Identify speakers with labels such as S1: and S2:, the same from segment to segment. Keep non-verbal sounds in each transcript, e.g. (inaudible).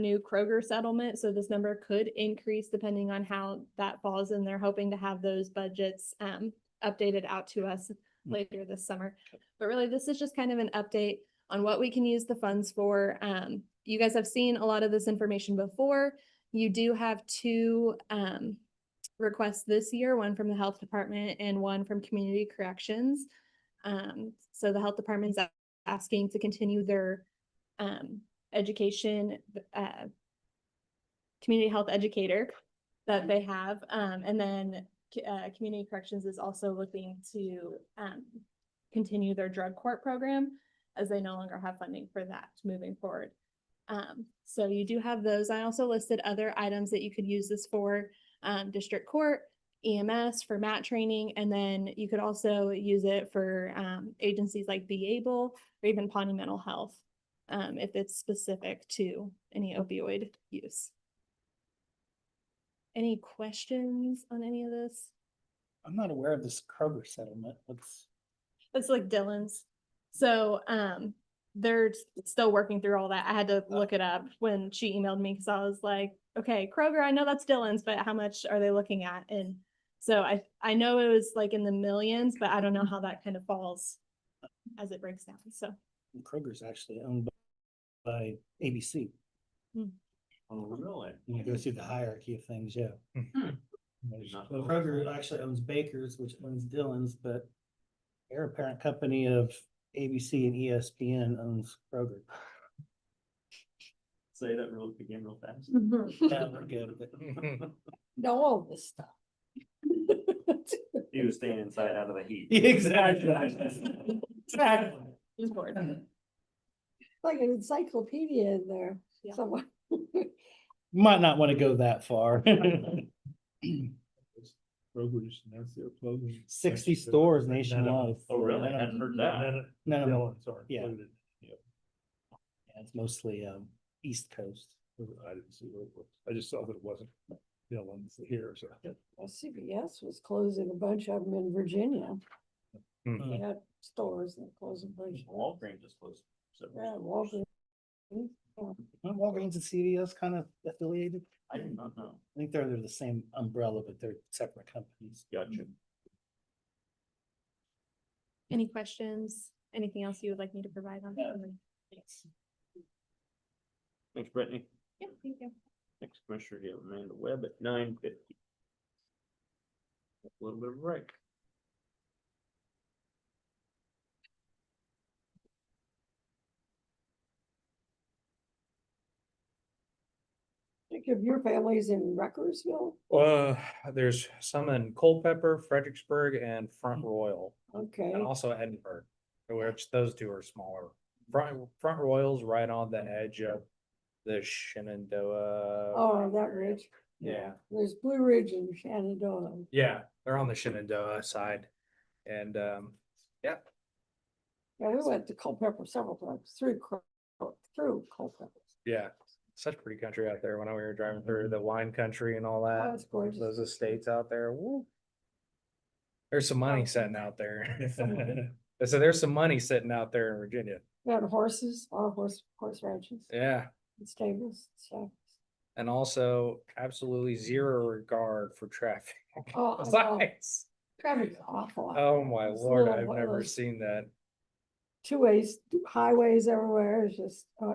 S1: new Kroger settlement, so this number could increase depending on how that falls, and they're hoping to have those budgets um updated out to us later this summer. But really, this is just kind of an update on what we can use the funds for. Um, you guys have seen a lot of this information before. You do have two um requests this year, one from the Health Department and one from Community Corrections. Um, so the Health Department's a- asking to continue their um education, uh, community health educator that they have. Um, and then, c- uh, Community Corrections is also looking to, um, continue their drug court program as they no longer have funding for that moving forward. Um, so you do have those. I also listed other items that you could use this for, um, district court, EMS for mat training, and then you could also use it for, um, agencies like Be Able or even Pawnee Mental Health um, if it's specific to any opioid use. Any questions on any of this?
S2: I'm not aware of this Kroger settlement. What's,
S1: That's like Dylan's. So, um, they're s- still working through all that. I had to look it up when she emailed me because I was like, okay, Kroger, I know that's Dylan's, but how much are they looking at? And so I, I know it was like in the millions, but I don't know how that kind of falls as it breaks down. So,
S2: Kroger's actually owned by- by ABC.
S3: Oh, really?
S2: When you go through the hierarchy of things, yeah.
S3: Hmm.
S2: There's-
S3: Not-
S2: well, Kroger actually owns Baker's, which owns Dillon's, but they're a parent company of ABC and E ESPN owns Kroger.
S3: Say that real again real fast.
S2: (laughs) Yeah, we're good, but-
S4: Know all this stuff. (laughs)
S3: He was staying inside out of the heat.
S2: (laughs)
S3: (laughs)
S2: Exactly. Exactly.
S1: just bored.
S4: Like an encyclopedia in there
S1: Yeah.
S4: somewhere.
S2: Might not want to go that (laughs) far.
S5: Kroger's, and that's their clothing.
S2: 60 stores nationwide.
S3: Oh, really? I hadn't heard that.
S2: No, no,
S5: Dylan's are
S2: Yeah.
S5: included.
S2: yeah, it's mostly, um, East Coast.
S5: I didn't see what it was. I just saw that it wasn't Dylan's here, so.
S4: Well, CBS was closing a bunch of them in Virginia. They
S2: Mm.
S4: had stores and closed a bunch.
S3: Walgreens just closed.
S4: Yeah,
S3: several-
S4: Walgreens.
S2: Aren't Walgreens and CVS kind of affiliated?
S3: I did not know.
S2: I think they're under the same umbrella, but they're separate companies.
S3: Gotcha.
S1: Any questions? Anything else you would like me to provide on?
S2: No.
S1: Thanks.
S3: Thanks, Brittany.
S1: Yeah, thank you.
S3: Next commissioner, you have Amanda Webb at nine fifty. A little bit of a break.
S4: Think of your families in Rutgersville?
S6: Uh, there's some in Culpeper, Fredericksburg, and Front Royal,
S4: Mm-hmm. Okay,
S6: and also Edinburgh, which those two are smaller. Front, Front Royal's right on the edge of the Shenandoah.
S4: Oh, that ridge.
S6: Yeah,
S4: there's Blue Ridge and Shenandoah.
S6: yeah, they're on the Shenandoah side, and, um, yeah,
S4: Yeah, we went to Culpeper several times through, Cul- through Culpeper.
S6: yeah. Such pretty country out there when we were driving through the wine country and all
S4: Mm-hmm. Oh,
S6: that.
S4: it's gorgeous.
S6: Those estates out there, woo. There's some
S4: Oh.
S6: money sitting out there. (laughs) I said, there's some money sitting out there in Virginia.
S4: We had horses, a lot of horse, horse ranches
S6: Yeah,
S4: and stables, so.
S6: and also absolutely zero regard for traffic. (laughs)
S4: Oh, I know.
S6: Lights.
S4: Traffic's awful.
S6: Oh my
S4: It's a
S6: lord,
S4: little
S6: I've
S4: one of
S6: never
S4: those-
S6: seen that.
S4: Two ways, highways everywhere, it's just, uh,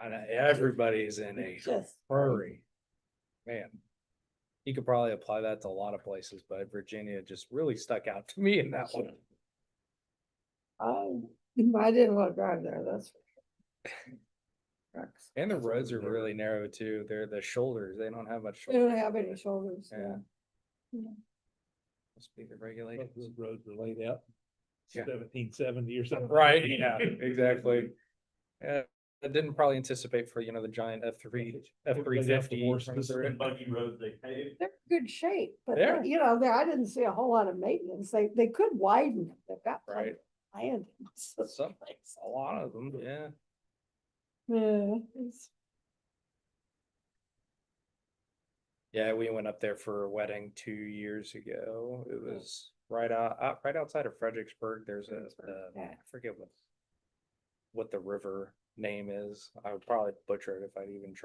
S6: And everybody's in a
S4: just.
S6: hurry. Man. You could probably apply that to a lot of places, but Virginia just really stuck out to me in that one.
S4: (laughs) Um, I didn't want to drive there, that's. for sure. Trucks.
S6: And the roads are really narrow too. They're the shoulders. They don't have much.
S4: We don't
S6: shoulder.
S4: have any shoulders, yeah.
S6: (laughs) Yeah. Must be the regulations.
S5: The roads were laid out
S6: Yeah.
S5: seventeen seventy or something.
S6: Right, yeah, exactly. Yeah, I didn't probably anticipate for, you know, the giant F three, F three fifty. (laughs)
S3: Buggy road they paved.
S4: They're in good shape, but,
S6: They're-
S4: they- you know, there, I didn't see a whole lot of maintenance, they, they could widen, it. they've got. plenty
S6: Right.
S4: of Land. So, (laughs)
S6: Some, a lot of them, yeah.
S4: Yeah, it's-
S6: Yeah, we went up there for a wedding two years ago. It was right out, out right outside of Fredericksburg. There's a,
S4: Fredericksburg,
S6: uh, I
S4: yeah.
S6: forget what what the river name is. I would probably butcher it if I'd even try.